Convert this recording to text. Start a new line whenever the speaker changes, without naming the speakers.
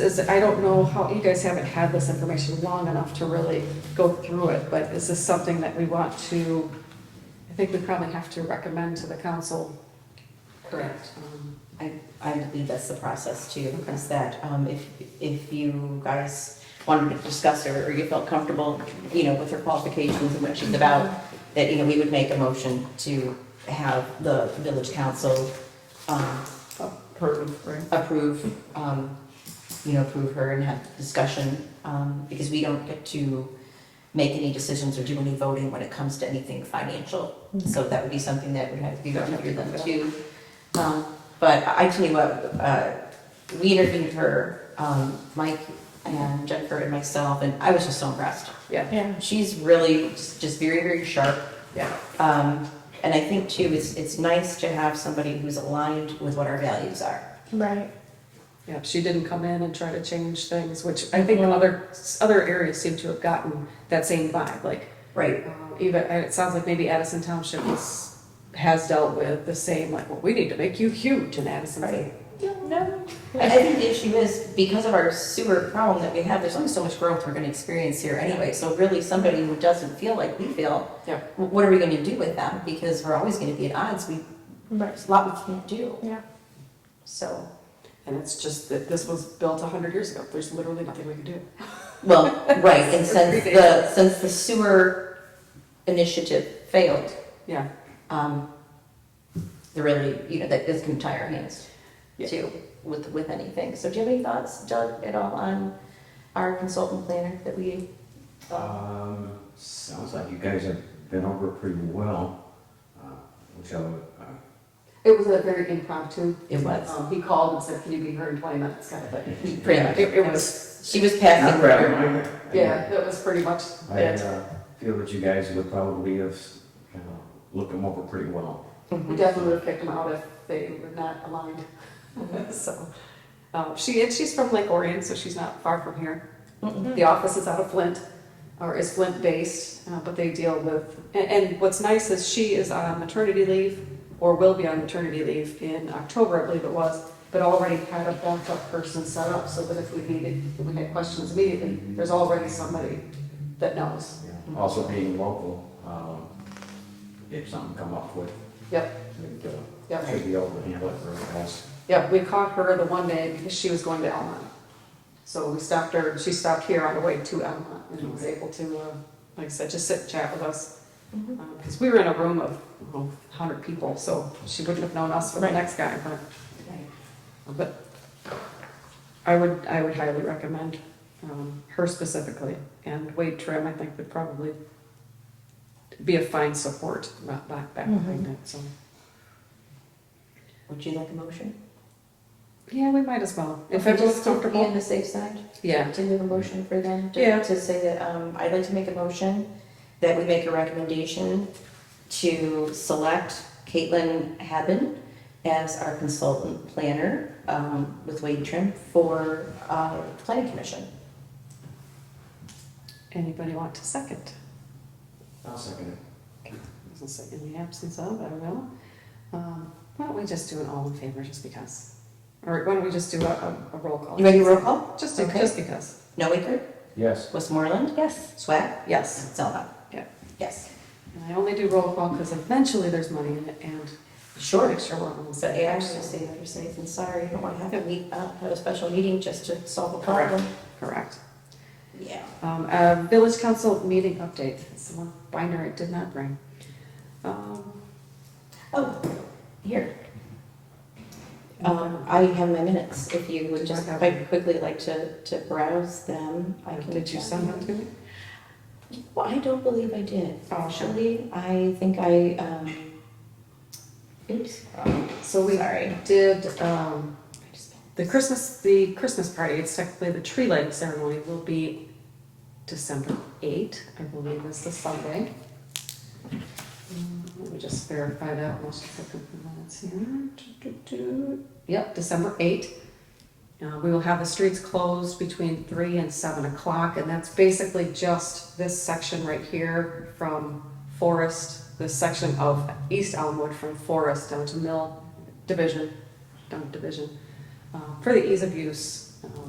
Is, I don't know how, you guys haven't had this information long enough to really go through it, but is this something that we want to, I think we probably have to recommend to the council, correct? Um,
I, I believe that's the process too, is that um, if, if you guys wanted to discuss her or you felt comfortable, you know, with her qualifications and what she's about, that, you know, we would make a motion to have the village council um,
Approve, right?
approve, um, you know, approve her and have discussion, um, because we don't get to make any decisions or do any voting when it comes to anything financial. So that would be something that would have to be done through them too. Um, but I tell you what, uh, we interviewed her, um, Mike and Jennifer and myself, and I was just so impressed.
Yeah,
Yeah.
She's really just, just very, very sharp.
yeah,
Um, and I think too, it's, it's nice to have somebody who's aligned with what our values are.
Right.
yeah, she didn't come in and try to change things, which I think other, other areas seem to have gotten that same vibe, like,
Right.
um, even, and it sounds like maybe Addison Township is, has dealt with the same, like, well, we need to make you huge in Addison.
Right. No. I I think the issue is, because of our sewer problem that we have, there's only so much growth we're gonna experience here anyway. So really, somebody who doesn't feel like we feel,
Yeah.
wh- what are we gonna do with them? Because we're always gonna be at odds, we,
Right.
there's a lot we can't do,
Yeah.
so.
And it's just that this was built a hundred years ago, there's literally nothing we can do.
Well, right, and since the,
Ridiculous.
since the sewer initiative failed,
Yeah,
um, they're really, you know, that is gonna tie our hands
Yeah.
too, with, with anything. So do you have any thoughts, Doug, at all on our consultant planner that we? uh,
Um, sounds like you guys have been over it pretty well, uh, which I would, uh,
it was a very impromptu.
It was.
Um, he called and said, can you be here in twenty minutes, kind of thing.
Pretty much.
It, it was,
She was passing.
not right.
yeah, that was pretty much
I,
it.
uh, feel that you guys would probably have, you know, looked them over pretty well.
We definitely would have kicked him out if they were not aligned, so. Um, she, and she's from Lake Orion, so she's not far from here.
Mm-hmm.
The office is out of Flint, or is Flint-based, uh, but they deal with, and, and what's nice is she is on maternity leave, or will be on maternity leave in October, I believe it was, but already had a backup person set up, so that if we needed, if we had questions immediately, there's already somebody that knows.
you know. Also being local, um, if something come up with,
Yep,
we'd, uh,
yep.
should be able to handle it really fast.
Yeah, we caught her the one day because she was going to Elmont. So we stopped her, she stopped here on the way to Elmont and was able to, uh, like I said, just sit and chat with us.
Mhm.
Because we were in a room of, I don't know, 100 people, so she wouldn't have known us from the
Right.
next guy. but- But I would, I would highly recommend um, her specifically. And Wade Trim, I think, would probably be a fine support back back behind it, so.
Would you like a motion?
Yeah, we might as well. If everyone's
Just to Be on
comfortable.
the safe side,
Yeah.
to do a motion for them,
Yeah.
to, to say that, um, I'd like to make a motion that we make a recommendation to select Caitlin Haben as our consultant planner, um, with Wade Trim for, uh, planning commission.
Anybody want to second?
I'll second it.
Doesn't say in the absence of, I don't know. Um, Why don't we just do an all in favor, just because? Or why don't we just do a, a- a roll call?
You ready to roll call?
Just, to-
Okay.
just because,
Noaker,
Yes.
Westmoreland,
Yes.
Swack,
yes.
Zelma.
Yeah.
Yes.
And I only do roll call because eventually there's money in it and
Sure.
make sure we're on the
So
same
AI
page.
is gonna say better safe than sorry, you don't wanna have to meet, uh, have a special meeting just to solve a
Correct.
problem.
Correct.
Yeah.
Um, uh, Village Council meeting update, it's the one binder I did not bring. Um,
Oh, here. Um, I have my minutes, if you would just, if I quickly like to, to browse them, I can.
Oh, Did you send that to me?
Well, I don't believe I did,
Oh.
actually, I think I, um, oops,
So we
sorry.
did, um,
I just-
The Christmas, the Christmas party, it's technically the tree lighting ceremony will be December eight, I believe is the Sunday. Um, Let me just verify that, most of the minutes here. Do, do, do. Yep, December eight. Uh, we will have the streets closed between three and seven o'clock, and that's basically just this section right here from Forest, this section of East Elmwood from Forest down to Mill Division, down to Division uh, for the ease of use. um,